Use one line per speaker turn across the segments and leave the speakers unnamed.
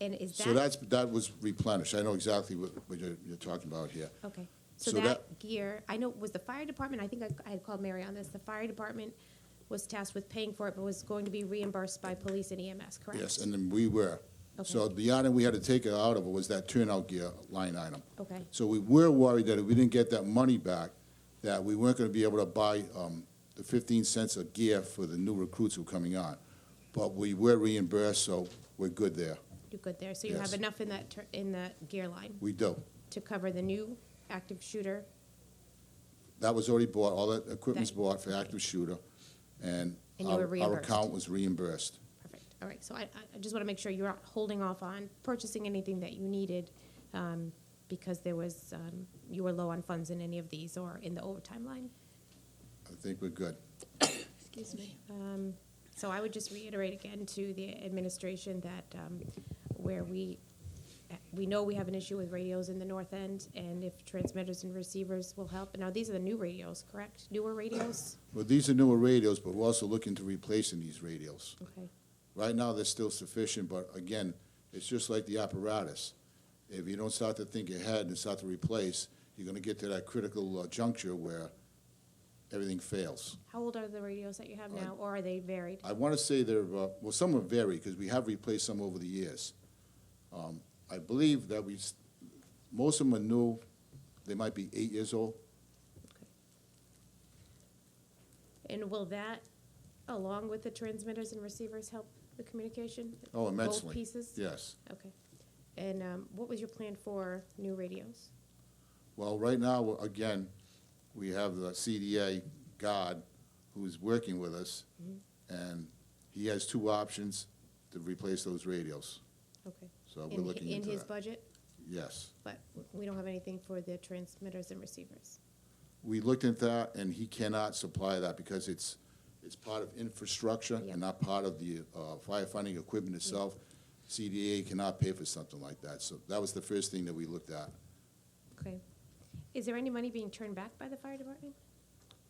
And is that?
So that's, that was replenished. I know exactly what, what you're, you're talking about here.
Okay, so
So
that gear, I know, was the fire department, I think I- I had called Mary on this, the fire department was tasked with paying for it, but was going to be reimbursed by police and EMS, correct?
Yes, and then we were. So
Okay.
the item we had to take it out of was that turnout gear line item.
Okay.
So we were worried that if we didn't get that money back, that we weren't gonna be able to buy, um, the fifteen cents of gear for the new recruits who were coming on. But we were reimbursed, so we're good there.
You're good there, so you have
Yes.
enough in that, tur- in that gear line
We do.
to cover the new active shooter?
That was already bought, all that equipment's
That-
bought for active shooter, and
And you were
our, our
reimbursed.
account was reimbursed.
Perfect, all right, so I, I- I just want to make sure you're not holding off on purchasing anything that you needed, um, because there was, um, you were low on funds in any of these or in the overtime line?
I think we're good.
Excuse me. Um, So I would just reiterate again to the administration that um, where we, we know we have an issue with radios in the north end, and if transmitters and receivers will help. Now, these are the new radios, correct? Newer radios?
Well, these are newer radios, but we're also looking to replacing these radios.
Okay,
Right now, they're still sufficient, but again, it's just like the apparatus. If you don't start to think ahead and start to replace, you're gonna get to that critical uh, juncture where everything fails.
how old are the radios that you have now, or are they varied?
I wanna say there, uh, well, some are varied, because we have replaced some over the years. Um, I believe that we, s- most of them are new, they might be eight years old.
And will that, along with the transmitters and receivers, help the communication?
Oh, immensely.
Both pieces?
Yes.
Okay. And um, what was your plan for new radios?
Well, right now, again, we have the CDA God who's working with us,
Mm-hmm.
and he has two options to replace those radios.
Okay.
So we're
In-
looking into
In his
that.
budget?
Yes.
but we don't have anything for the transmitters and receivers.
We looked into that, and he cannot supply that because it's, it's part of infrastructure
Yeah.
and not part of the uh, firefighting equipment itself. CDA cannot pay for something like that, so that was the first thing that we looked at.
Okay. Is there any money being turned back by the fire department?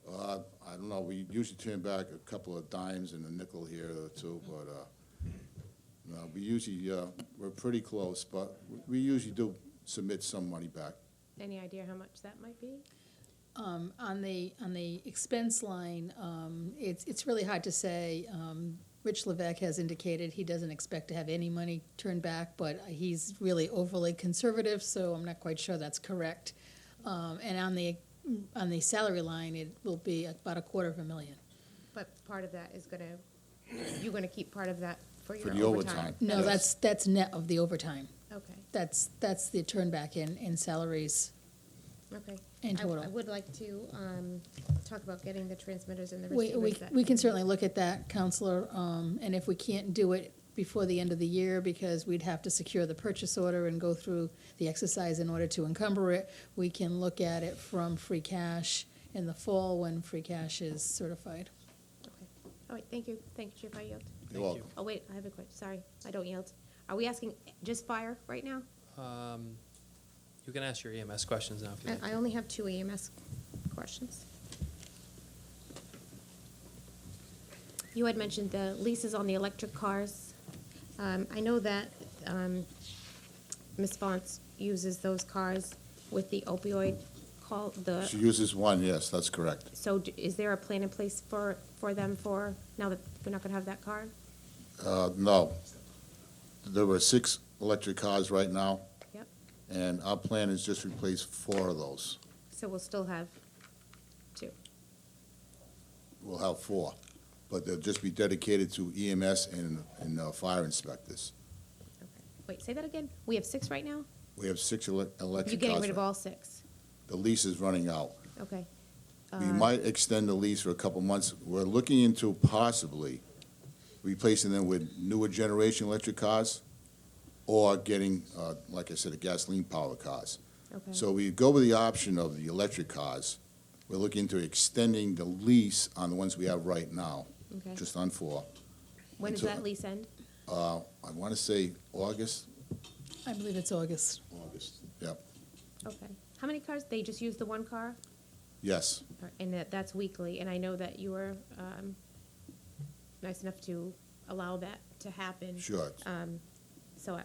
Uh, I don't know, we usually turn back a couple of dimes and a nickel here or two,
Mm-hmm.
but, uh, no, we usually, uh, we're pretty close, but we usually do submit some money back.
Any idea how much that might be?
Um, on the, on the expense line, um, it's, it's really hard to say. Um, Rich Levesque has indicated he doesn't expect to have any money turned back, but he's really overly conservative, so I'm not quite sure that's correct. Um, and on the, on the salary line, it will be about a quarter of a million.
But part of that is gonna, you're gonna keep part of that for your
the
overtime?
overtime.
No,
Yes.
that's, that's net of the overtime.
Okay,
That's, that's the turn back in, in salaries.
okay.
In
I- I
total.
would like to, um, talk about getting the transmitters and the
We,
receivers
we,
that.
we can certainly look at that, Counselor, um, and if we can't do it before the end of the year, because we'd have to secure the purchase order and go through the exercise in order to encumber it, we can look at it from free cash in the fall when free cash is certified.
Okay. All right, thank you, thank you, Chief, I yield.
You're welcome.
Oh, wait, I have a question, sorry, I don't yield. Are we asking just fire right now?
Um, you can ask your EMS questions now if you like.
I, I only have two EMS questions. You had mentioned the leases on the electric cars. Um, I know that, um, Ms. Fonce uses those cars with the opioid call,
She
the,
uses one, yes, that's correct.
so d- is there a plan in place for, for them for, now that we're not gonna have that car?
Uh, no. There were six electric cars right now,
Yep,
and our plan is just replace four of those.
so we'll still have two.
We'll have four, but they'll just be dedicated to EMS and, and uh, fire inspectors.
Okay. Wait, say that again? We have six right now?
We have six ele- electric cars.
You're getting rid of
right-
all six?
The lease is running out.
Okay.
We
Uh,
might extend the lease for a couple months. We're looking into possibly replacing them with newer generation electric cars or getting, uh, like I said, a gasoline powered cars.
Uh, Okay.
So we go with the option of the electric cars. We're looking into extending the lease on the ones we have right now,
Okay.
just on four.
When does
until-
that lease end?
Uh, I want to say August,
I believe it's August.
August, yep,
Okay. How many cars? They just use the one car?
yes.
Or- And that, that's weekly, and I know that you were, um, nice enough to allow that to happen.
Sure.
Um,